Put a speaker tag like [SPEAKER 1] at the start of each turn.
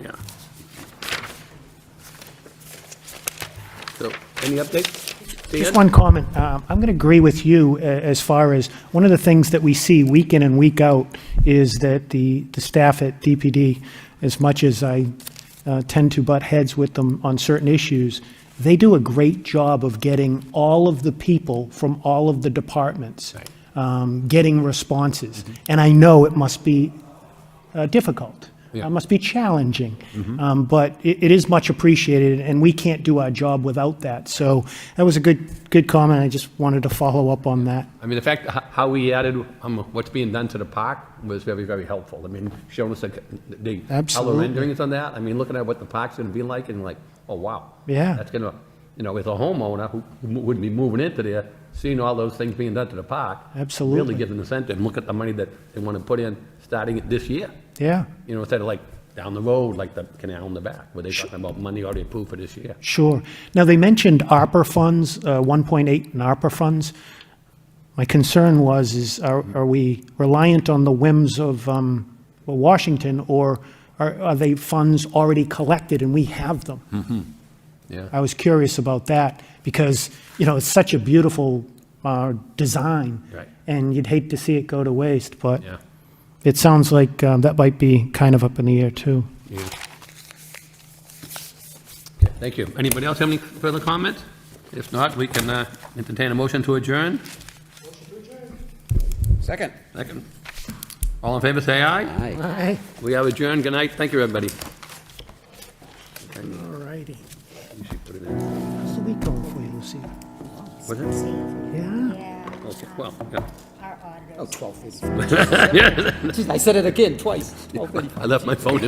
[SPEAKER 1] yeah. So, any updates?
[SPEAKER 2] Just
[SPEAKER 1] Dan?
[SPEAKER 2] one comment. Um, I'm going to agree with you a- as far as, one of the things that we see week in and week out is that the, the staff at DPD, as much as I uh, tend to butt heads with them on certain issues, they do a great job of getting all of the people from all of the departments, um, getting responses. And I know it must be uh, difficult.
[SPEAKER 1] Yeah.
[SPEAKER 2] It must be challenging. Um, But it it is much appreciated, and we can't do our job without that. So that was a good, good comment. I just wanted to follow up on that.
[SPEAKER 1] I mean, the fact, h- how we added, um, what's being done to the park was very, very helpful. I mean, showing us like, the color
[SPEAKER 2] Absolutely.
[SPEAKER 1] renderings on that, I mean, looking at what the park's gonna be like, and like, oh, wow.
[SPEAKER 2] Yeah.
[SPEAKER 1] That's gonna, you know, as a homeowner who who would be moving into there, seeing all those things being done to the park. Really
[SPEAKER 2] Absolutely.
[SPEAKER 1] gives an incentive, and look at the money that they wanna put in, starting it this year.
[SPEAKER 2] Yeah,
[SPEAKER 1] You know, instead of like, down the road, like the canal in the back, where they're talking about money already approved for this year.
[SPEAKER 2] sure. Now, they mentioned ARPA funds, uh, 1.8 in ARPA funds. My concern was, is are are we reliant on the whims of um, well, Washington, or are are they funds already collected and we have them?
[SPEAKER 1] Yeah.
[SPEAKER 2] I was curious about that because, you know, it's such a beautiful uh, design.
[SPEAKER 1] Right.
[SPEAKER 2] And you'd hate to see it go to waste, but
[SPEAKER 1] Yeah.
[SPEAKER 2] it sounds like um, that might be kind of up in the air, too.
[SPEAKER 1] Yeah. Okay, Thank you. Anybody else have any further comments? If not, we can uh, entertain a motion to adjourn.
[SPEAKER 3] Second.
[SPEAKER 1] Second. All in favor, say aye.
[SPEAKER 3] Aye.
[SPEAKER 1] We are adjourned. Good night. Thank you, everybody.
[SPEAKER 2] All righty.
[SPEAKER 1] You should put it in.
[SPEAKER 2] How's the week going for you, Lucy?
[SPEAKER 1] Was it?
[SPEAKER 2] Yeah?
[SPEAKER 4] Yeah,
[SPEAKER 1] Okay, well, yeah.
[SPEAKER 4] our auditors.
[SPEAKER 3] Oh, 12:55. Jeez, I said it again, twice. 12:55.
[SPEAKER 1] I left my phone in.